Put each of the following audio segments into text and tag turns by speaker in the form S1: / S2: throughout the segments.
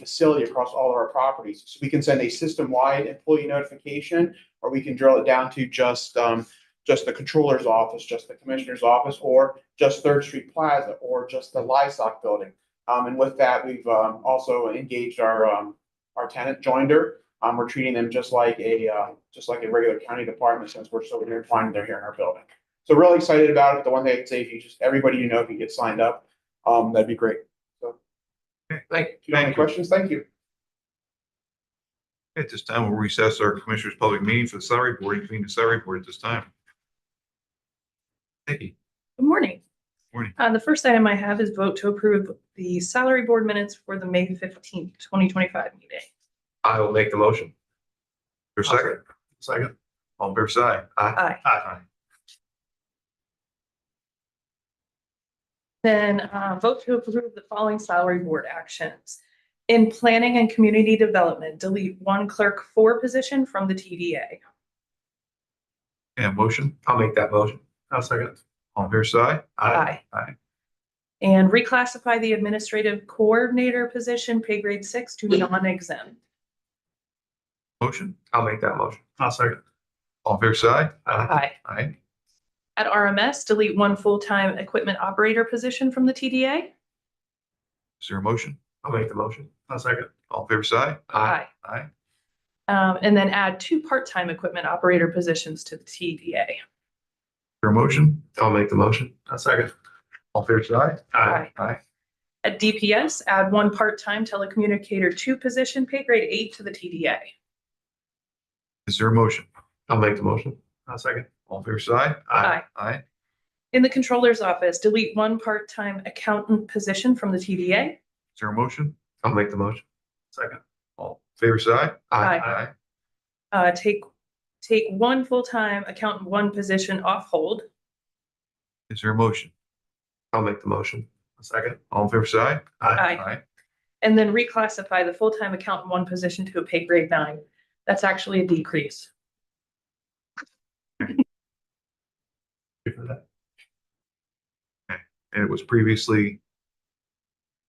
S1: facility across all of our properties. So we can send a system-wide employee notification, or we can drill it down to just, um, just the controller's office, just the commissioner's office, or just Third Street Plaza, or just the livestock building. Um, and with that, we've, um, also engaged our, um, our tenant joinder. Um, we're treating them just like a, uh, just like a regular county department since we're so intertwined, they're here in our building. So really excited about it. The one thing I'd say, if you just, everybody you know, if you get signed up, um, that'd be great.
S2: Thank,
S1: If you have any
S2: thank you.
S1: questions, thank you.
S2: At this time, we'll recess our commissioners' public meeting for the salary board, and convene the salary board at this time. Nikki,
S3: Good morning.
S2: Morning.
S3: Uh, the first item I have is vote to approve the salary board minutes for the May fifteenth, twenty twenty-five meeting.
S4: I will make the motion.
S2: your second? Second. On fair side?
S3: Aye.
S2: Aye.
S3: Then, uh, vote to approve the following salary board actions. In planning and community development, delete one clerk four position from the TDA.
S2: And motion,
S4: I'll make that motion.
S2: I'll second. On fair side?
S3: Aye. And reclassify the administrative coordinator position, pay grade six to non-exempt.
S2: Motion,
S4: I'll make that motion.
S2: I'll second. On fair side?
S3: Aye.
S2: Aye.
S3: At RMS, delete one full-time equipment operator position from the TDA.
S2: Is there a motion?
S4: I'll make the motion.
S2: I'll second. On fair side? Aye.
S3: Um, and then add two part-time equipment operator positions to the TDA.
S2: Your motion?
S4: I'll make the motion.
S2: I'll second. On fair side?
S3: Aye.
S2: Aye.
S3: At DPS, add one part-time telecommunicator two position, pay grade eight to the TDA.
S2: Is there a motion?
S4: I'll make the motion.
S2: I'll second. On fair side?
S3: Aye.
S2: Aye.
S3: In the controller's office, delete one part-time accountant position from the TDA.
S2: Is there a motion?
S4: I'll make the motion.
S2: Second. All fair side?
S3: Aye. Uh, take, take one full-time accountant one position off hold.
S2: Is there a motion?
S4: I'll make the motion.
S2: Second. All fair side?
S3: Aye. And then reclassify the full-time accountant one position to a pay grade nine. That's actually a decrease.
S2: And it was previously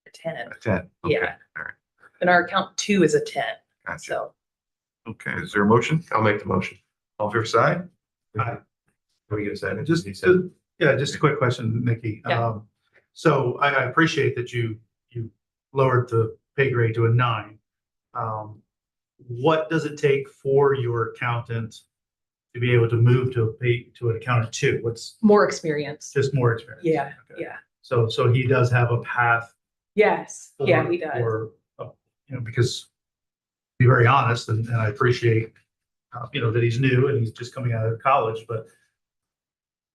S3: A ten.
S2: a ten. Okay,
S3: Yeah.
S2: All right.
S3: And our account two is a ten,
S2: Gotcha.
S3: so.
S2: Okay. Is there a motion?
S4: I'll make the motion.
S2: All fair side?
S5: Aye.
S4: Will you say
S5: And
S4: it?
S5: Just,
S4: You said it.
S5: just- yeah, just a quick question, Nikki.
S3: Yeah.
S5: Um, so I, I appreciate that you, you lowered the pay grade to a nine. Um, what does it take for your accountant to be able to move to a pay, to an accountant two? What's
S3: More experience.
S5: just more experience?
S3: Yeah,
S5: Okay.
S3: yeah.
S5: So, so he does have a path.
S3: Yes, yeah,
S5: for-
S3: he does.
S5: for, uh, you know, because to be very honest, and, and I appreciate, uh, you know, that he's new and he's just coming out of college, but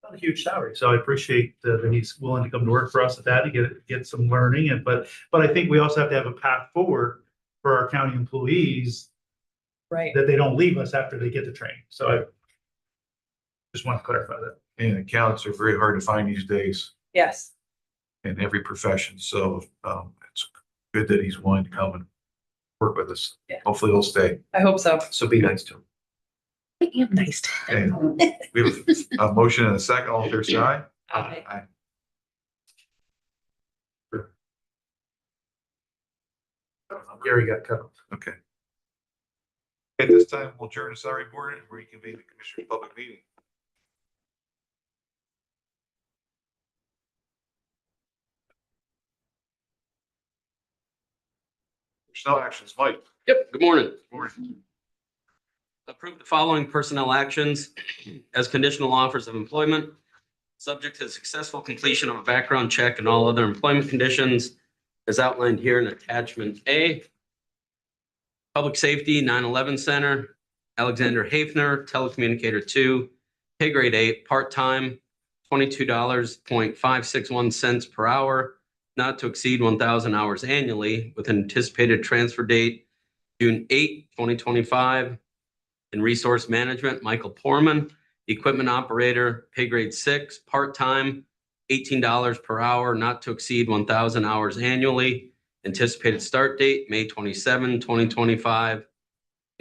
S5: not a huge salary. So I appreciate that that he's willing to come to work for us at that to get, get some learning and, but, but I think we also have to have a path forward for our county employees
S3: Right.
S5: that they don't leave us after they get the training. So I just want to clarify that.
S2: And accounts are very hard to find these days
S3: Yes.
S2: in every profession. So um, it's good that he's willing to come and work with us.
S3: Yeah.
S2: Hopefully he'll stay.
S3: I hope so.
S4: So be nice to him.
S3: I am nice. to
S2: Okay. We have a motion and a second. All fair side?
S3: Aye.
S5: Gary got cut off.
S2: Okay. At this time, we'll adjourn the salary board and reconvene the commissioner's public meeting. There's no actions, Mike.
S6: Yep, good morning. Approve the following personnel actions as conditional offers of employment, subject to successful completion of a background check and all other employment conditions as outlined here in attachment A. Public Safety, 9/11 Center, Alexander Hafner, Telecommunicator two, pay grade eight, part-time, twenty-two dollars, point five six one cents per hour, not to exceed one thousand hours annually with an anticipated transfer date June 8, 2025. In Resource Management, Michael Porman, Equipment Operator, pay grade six, part-time, $18 per hour, not to exceed 1,000 hours annually. Anticipated start date, May 27, 2025.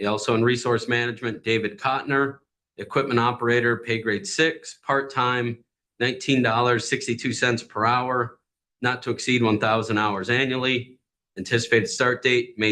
S6: Also in Resource Management, David Cotner, Equipment Operator, pay grade six, part-time, $19.62 per hour, not to exceed 1,000 hours annually. Anticipated start date, May